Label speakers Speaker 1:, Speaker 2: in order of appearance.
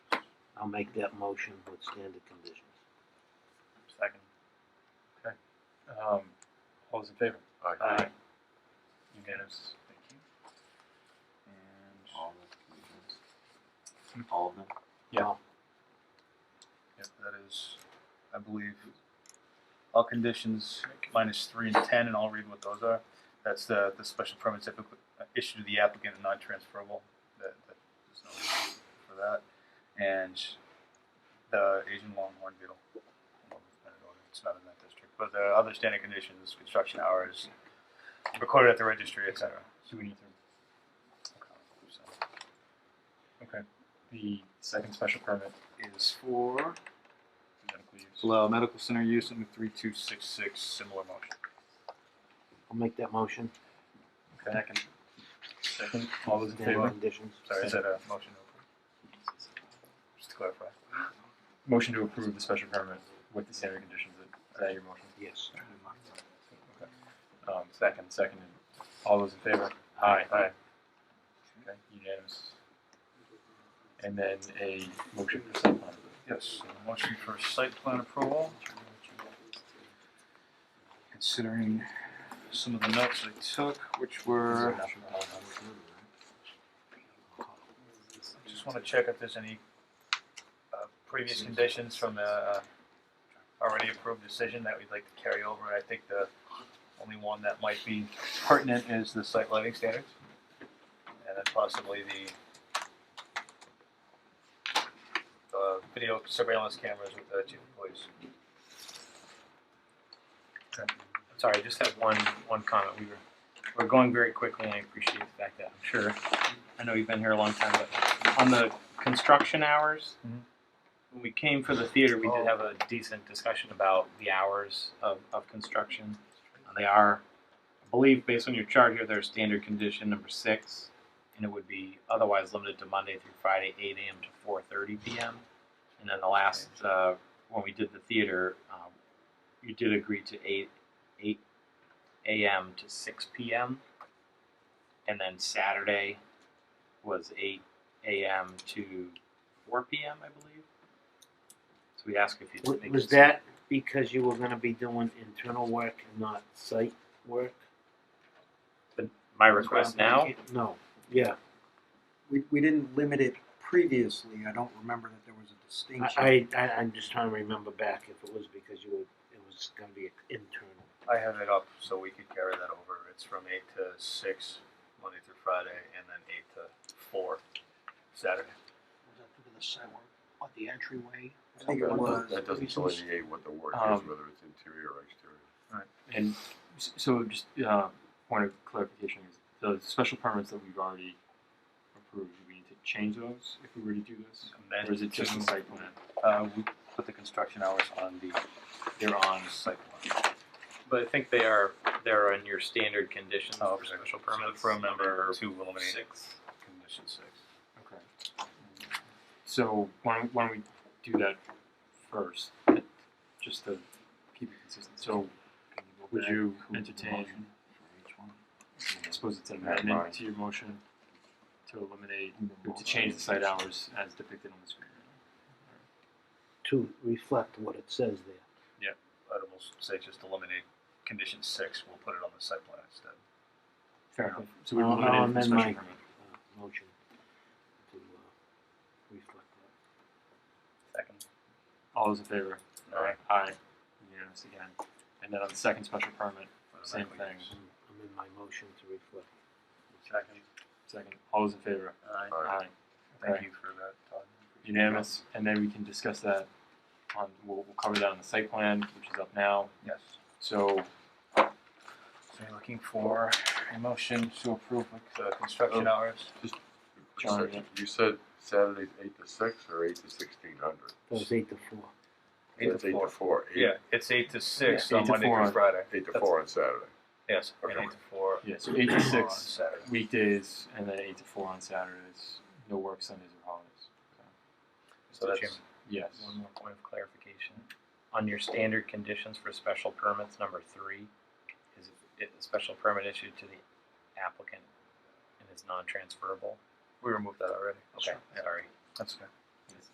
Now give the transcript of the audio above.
Speaker 1: I'll make that motion with standard conditions.
Speaker 2: Second. Okay. Um, all those in favor?
Speaker 3: Aye.
Speaker 2: Unanimous, thank you. And, Hmm?
Speaker 3: All the conditions. All of them?
Speaker 2: yep, that is, I believe, all conditions minus three and ten, and I'll read what those are. That's the, the special permits typically issued to the applicant and non-transferable, that, that, there's no reason for that. And the Asian longhorn beetle. It's not in that district, but the other standard conditions, construction hours, recorded at the registry, et cetera.
Speaker 4: Do we need to
Speaker 2: So,
Speaker 4: the second special permit is for medical use.
Speaker 2: Allow medical center use under three two six six, similar motion.
Speaker 1: I'll make that motion
Speaker 2: Second.
Speaker 4: Second, all
Speaker 1: with
Speaker 4: those in
Speaker 1: standard
Speaker 4: favor?
Speaker 1: conditions.
Speaker 2: Sorry, is that a motion? Just to clarify.
Speaker 4: Motion to approve the special permit with the standard conditions. Is that your motion?
Speaker 1: Yes.
Speaker 4: Um, second, seconded. All those in favor? Aye. Aye. Okay, unanimous. And then a motion for site plan.
Speaker 2: Yes, a motion for site plan approval. Considering some of the notes I took, which were, just wanna check if there's any uh, previous conditions from the uh, already approved decision that we'd like to carry over. I think the only one that might be pertinent is the site lighting standards. And then possibly the uh, video surveillance cameras with the chief of police.
Speaker 4: Sorry, I just have one, one comment. We were, we're going very quickly and I appreciate the fact that I'm sure, I know you've been here a long time, but on the construction hours,
Speaker 2: Mhm.
Speaker 4: when we came for the theater, we did have a decent discussion about the hours of, of construction. And they are, I believe, based on your chart here, they're standard condition number six. And it would be otherwise limited to Monday through Friday, eight AM to four thirty PM. And then the last, uh, when we did the theater, um, you did agree to eight eight a.m. to six p.m. and then Saturday was eight a.m. to four p.m. I believe. So we ask if you
Speaker 1: W-
Speaker 4: make
Speaker 1: Was
Speaker 4: it-
Speaker 1: that because you were gonna be doing internal work and not site work?
Speaker 4: my request now?
Speaker 1: No, yeah,
Speaker 5: We, we didn't limit it previously. I don't remember that there was a distinction.
Speaker 1: I, I, I- I'm just trying to remember back if it was because you were, it was gonna be internal.
Speaker 2: I have it up so we could carry that over. It's from eight to six, Monday through Friday, and then eight to four, Saturday.
Speaker 6: on the entryway.
Speaker 5: I think it
Speaker 3: That-
Speaker 5: was.
Speaker 3: That doesn't delineate what the work is,
Speaker 4: Um,
Speaker 3: whether it's interior or exterior.
Speaker 4: And s- so just uh, point of clarification is the special permits that we've already approved, do we need to change those if we were to do this? Or is it just a site plan?
Speaker 2: Uh, we put the construction hours on the, they're on site plan.
Speaker 7: But I think they are, they're in your standard conditions
Speaker 2: Oh,
Speaker 7: for
Speaker 2: okay.
Speaker 7: special
Speaker 2: So
Speaker 7: permits.
Speaker 2: From number two, eliminate
Speaker 7: Six.
Speaker 2: condition six.
Speaker 4: Okay. So why don't, why don't we do that first, just to keep it consistent? So would you entertain, I suppose it's an amendment to your motion to eliminate, to change the site hours as depicted on the screen?
Speaker 1: To reflect what it says there.
Speaker 2: I would almost say just eliminate condition six, we'll put it on the site plan instead.
Speaker 4: Fair enough. So we
Speaker 1: I'll- I'll
Speaker 4: eliminated the
Speaker 1: amend
Speaker 4: special
Speaker 1: my-
Speaker 4: permit.
Speaker 1: uh, Motion to, uh, reflect that.
Speaker 2: Second.
Speaker 4: All those in favor?
Speaker 2: Aye.
Speaker 4: Aye. Unanimous again. And then on the second special permit, Same thing.
Speaker 1: I'm I'm in my motion to reflect.
Speaker 2: Second.
Speaker 4: second, all those in favor?
Speaker 2: Aye.
Speaker 3: Aye.
Speaker 2: Thank you for that, Todd.
Speaker 4: Unanimous, and then we can discuss that on, we'll, we'll cover that on the site plan, which is up now.
Speaker 2: Yes.
Speaker 4: So,
Speaker 2: So you're looking for a motion to approve like, the construction hours?
Speaker 4: John,
Speaker 3: Section- You said Saturday's eight to six or eight to sixteen hundred?
Speaker 1: That was eight to four.
Speaker 2: Eight to
Speaker 3: That's eight
Speaker 2: four.
Speaker 3: to four, eight,
Speaker 2: Yeah, it's eight to six
Speaker 4: Yeah, eight
Speaker 2: on
Speaker 4: to
Speaker 2: Monday
Speaker 4: four
Speaker 2: through
Speaker 4: on-
Speaker 2: Friday.
Speaker 3: eight to
Speaker 2: That's-
Speaker 3: four on Saturday.
Speaker 2: Yes, and
Speaker 3: Okay.
Speaker 2: eight to four.
Speaker 4: yeah, so eight to
Speaker 2: on
Speaker 4: six
Speaker 2: Saturday.
Speaker 4: weekdays, and then eight to four on Saturdays, no work Sundays or holidays.
Speaker 2: So that's
Speaker 4: Yes,
Speaker 7: One more point of clarification. On your standard conditions for special permits, number three, is it a special permit issued to the applicant and is non-transferable?
Speaker 2: we removed that already.
Speaker 7: Okay,
Speaker 2: Yeah,
Speaker 7: sorry.
Speaker 2: that's okay.